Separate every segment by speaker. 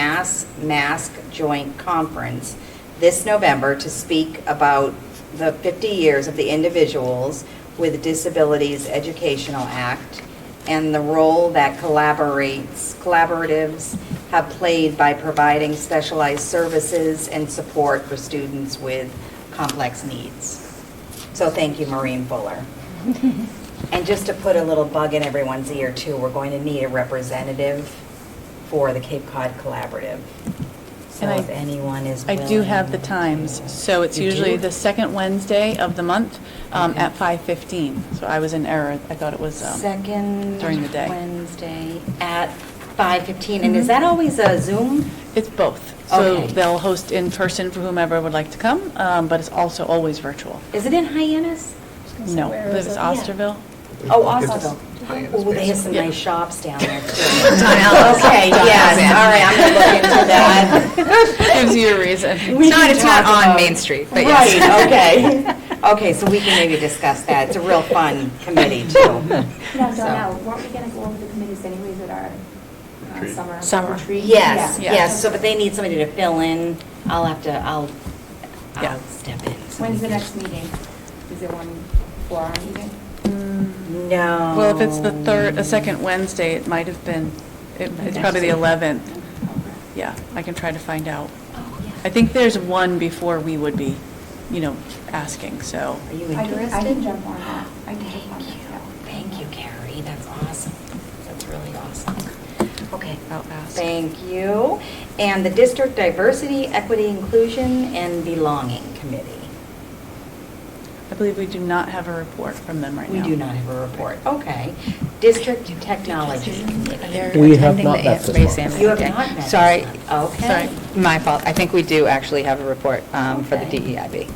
Speaker 1: Mass Mask Joint Conference this November to speak about the 50 years of the Individuals with Disabilities Educational Act and the role that collaborates, collaboratives have played by providing specialized services and support for students with complex needs. So thank you, Maureen Fuller. And just to put a little bug in everyone's ear too, we're going to need a representative for the Cape Cod Collaborative. So
Speaker 2: And I-
Speaker 1: if anyone is
Speaker 2: I
Speaker 1: willing.
Speaker 2: do have the times, so it's
Speaker 1: You do?
Speaker 2: usually the second Wednesday of the month um,
Speaker 1: Okay.
Speaker 2: at 5:15. So I was in error, I thought it was, um,
Speaker 1: Second.
Speaker 2: during the day.
Speaker 1: Wednesday at 5:15. And is that always a Zoom?
Speaker 2: it's both. So
Speaker 1: Okay.
Speaker 2: they'll host in person for whomever would like to come, um, but it's also always virtual.
Speaker 1: Is it in Hyannis?
Speaker 2: No, it
Speaker 3: where is
Speaker 2: was
Speaker 3: it?
Speaker 2: Osterville.
Speaker 1: Oh, Ossaville.
Speaker 4: Hyannis
Speaker 1: Oh, they have some
Speaker 2: Yeah.
Speaker 1: nice shops down there too. Okay, yes, all right, I'm going to look into that.
Speaker 2: Gives you a reason.
Speaker 1: We
Speaker 3: It's not-
Speaker 1: can
Speaker 3: it's not
Speaker 1: talk
Speaker 3: on
Speaker 1: about-
Speaker 3: Main Street, but yes.
Speaker 1: Right, okay. Okay, so we can maybe discuss that. It's a real fun committee, too.
Speaker 5: No,
Speaker 1: So-
Speaker 5: Donnell, weren't we going to go over the committees anyways at our uh,
Speaker 4: Retreat.
Speaker 5: summer?
Speaker 3: Summer.
Speaker 5: retreat?
Speaker 1: Yes,
Speaker 5: Yeah.
Speaker 1: yes, so, but they need somebody to fill in. I'll have to, I'll,
Speaker 2: Yeah.
Speaker 1: I'll step in. so
Speaker 5: When's
Speaker 1: we
Speaker 5: the
Speaker 1: can-
Speaker 5: next meeting? Is there one for our meeting?
Speaker 1: No.
Speaker 2: Well, if it's the third, the second Wednesday, it might have been, it- it's probably the 11th. Yeah, I can try to find out. I think there's one before we would be, you know, asking, so.
Speaker 1: Are you
Speaker 5: I can- I can
Speaker 1: interested?
Speaker 5: jump on that. I can jump
Speaker 1: Thank
Speaker 5: on that,
Speaker 1: you,
Speaker 5: yeah.
Speaker 1: thank you, Carrie, that's awesome. That's really awesome. Okay.
Speaker 2: I'll ask.
Speaker 1: Thank you. And the District Diversity, Equity, Inclusion, and Belonging Committee.
Speaker 2: I believe we do not have a report from them right
Speaker 1: We
Speaker 2: now.
Speaker 1: do not have a report, okay. District Technology Committee.
Speaker 3: They're
Speaker 6: We have
Speaker 3: attending
Speaker 6: not
Speaker 3: the
Speaker 6: met
Speaker 3: Aunt
Speaker 6: this
Speaker 3: Ray's
Speaker 6: one.
Speaker 3: Annual
Speaker 1: You have
Speaker 3: Day.
Speaker 1: not met. this
Speaker 3: Sorry,
Speaker 1: one.
Speaker 3: sorry,
Speaker 1: Okay.
Speaker 3: my fault. I think we do actually have a report um, for the
Speaker 1: Okay.
Speaker 3: DEIB.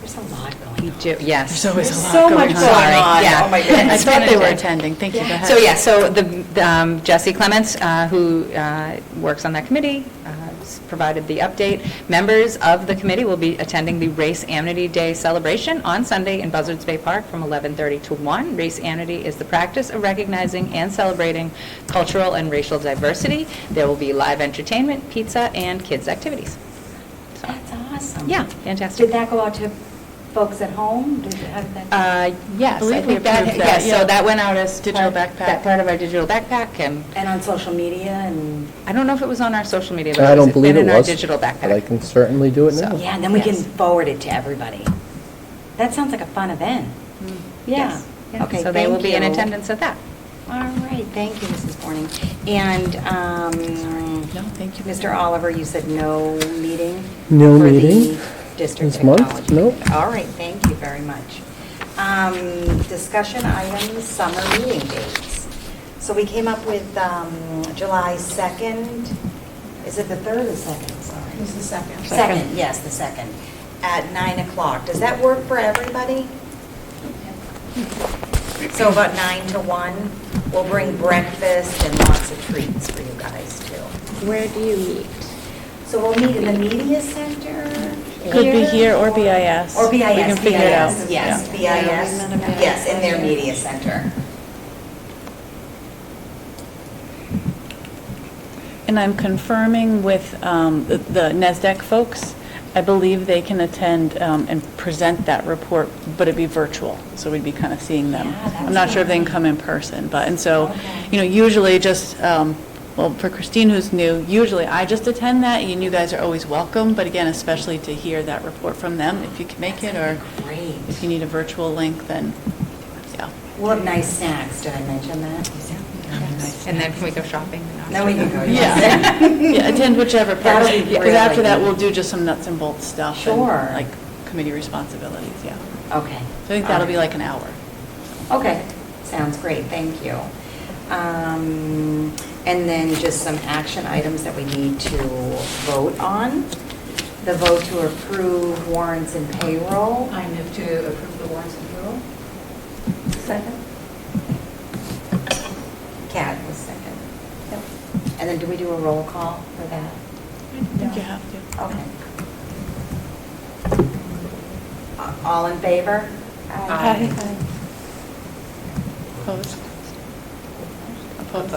Speaker 1: There's a lot
Speaker 3: We
Speaker 1: going on.
Speaker 3: do, yes.
Speaker 2: There's always a
Speaker 1: There's
Speaker 2: lot
Speaker 1: so
Speaker 2: going on.
Speaker 1: much going
Speaker 3: Sorry,
Speaker 1: on.
Speaker 3: yeah.
Speaker 1: Oh, my
Speaker 3: I
Speaker 1: goodness.
Speaker 2: thought they were
Speaker 3: Yeah.
Speaker 2: attending, thank you, go ahead.
Speaker 3: So, yeah, so the the, um, Jesse Clements, uh, who uh, works on that committee, uh, s- provided the update. Members of the committee will be attending the Race Amity Day celebration on Sunday in Buzzards Bay Park from 11:30 to 1. Race amity is the practice of recognizing and celebrating cultural and racial diversity. There will be live entertainment, pizza, and kids' activities. So,
Speaker 1: That's awesome.
Speaker 3: Yeah, fantastic.
Speaker 1: Did that go out to folks at home? Did you have that?
Speaker 3: Uh, Yes,
Speaker 2: believe
Speaker 3: I
Speaker 2: we
Speaker 3: think that,
Speaker 2: approved that,
Speaker 3: yes, so
Speaker 2: yeah.
Speaker 3: that went out as.
Speaker 2: Digital backpack.
Speaker 3: part- That part of our digital backpack, and
Speaker 1: And on social media and,
Speaker 3: I don't know if it was on our social media, but
Speaker 6: I
Speaker 3: it was
Speaker 6: don't believe it
Speaker 3: been in our
Speaker 6: was.
Speaker 3: digital
Speaker 6: But I
Speaker 3: backpack.
Speaker 6: can certainly do it now.
Speaker 3: So-
Speaker 1: yeah, and then we can
Speaker 3: Yes.
Speaker 1: forward it to everybody. That sounds like a fun event.
Speaker 2: Mm.
Speaker 1: Yeah.
Speaker 3: Yes.
Speaker 1: Okay,
Speaker 3: So they will
Speaker 1: thank
Speaker 3: be in
Speaker 1: you.
Speaker 3: attendance at that.
Speaker 1: All right, thank you, Mrs. Borning. And, um.
Speaker 2: No, thank you.
Speaker 1: Mr. Oliver, you said no meeting?
Speaker 6: No
Speaker 1: for the
Speaker 6: meeting
Speaker 1: District
Speaker 6: this month?
Speaker 1: Technology.
Speaker 6: Nope.
Speaker 1: All right, thank you very much. Um, Discussion items, summer meeting dates. So we came up with um, July 2nd, is it the 3rd or 2nd, sorry?
Speaker 5: Who's the second?
Speaker 1: Second, yes, the second, at nine o'clock. Does that work for everybody? So about nine to one, we'll bring breakfast and lots of treats for you guys too.
Speaker 5: Where do you meet?
Speaker 1: So we'll meet in the media center?
Speaker 2: Could be here or BIS.
Speaker 1: Or BIS,
Speaker 2: We can figure it out.
Speaker 1: BIS, Yes, BIS,
Speaker 5: Yeah. Yeah, we met at
Speaker 1: yes, in their
Speaker 5: BIS.
Speaker 1: media center.
Speaker 2: And I'm confirming with um, the the NASDAQ folks, I believe they can attend um, and present that report, but it'd be virtual, so we'd be kind of seeing them.
Speaker 1: Yeah, that's
Speaker 2: I'm not sure if they can
Speaker 1: fine.
Speaker 2: come in person, but, and so,
Speaker 1: Okay.
Speaker 2: you know, usually just, um, well, for Christine, who's new, usually I just attend that, and you guys are always welcome, but again, especially to hear that report from them, if you can make it, or
Speaker 1: Great.
Speaker 2: if you need a virtual link, then, yeah.
Speaker 1: We'll have nice snacks, did I mention that?
Speaker 3: And then can we go shopping? in
Speaker 1: Then we can go,
Speaker 3: Oxford?
Speaker 1: yes.
Speaker 2: Yeah, attend whichever part.
Speaker 1: That'll be
Speaker 2: Because after that,
Speaker 1: really-
Speaker 2: we'll do just some nuts and bolts stuff. and,
Speaker 1: Sure.
Speaker 2: Like committee responsibilities, yeah.
Speaker 1: Okay.
Speaker 2: So I think that'll be
Speaker 1: All right.
Speaker 2: like an hour.
Speaker 1: Okay, sounds great, thank you. Um, And then just some action items that we need to vote on. The vote to approve warrants and payroll.
Speaker 7: I move to approve the warrants and payroll.
Speaker 5: Second?
Speaker 1: Cat was second. And then do we do a roll call for that?
Speaker 5: think you
Speaker 2: have to.
Speaker 1: Okay. A- All in favor?
Speaker 5: Aye.
Speaker 7: Aye.
Speaker 2: Opposed? Opposed?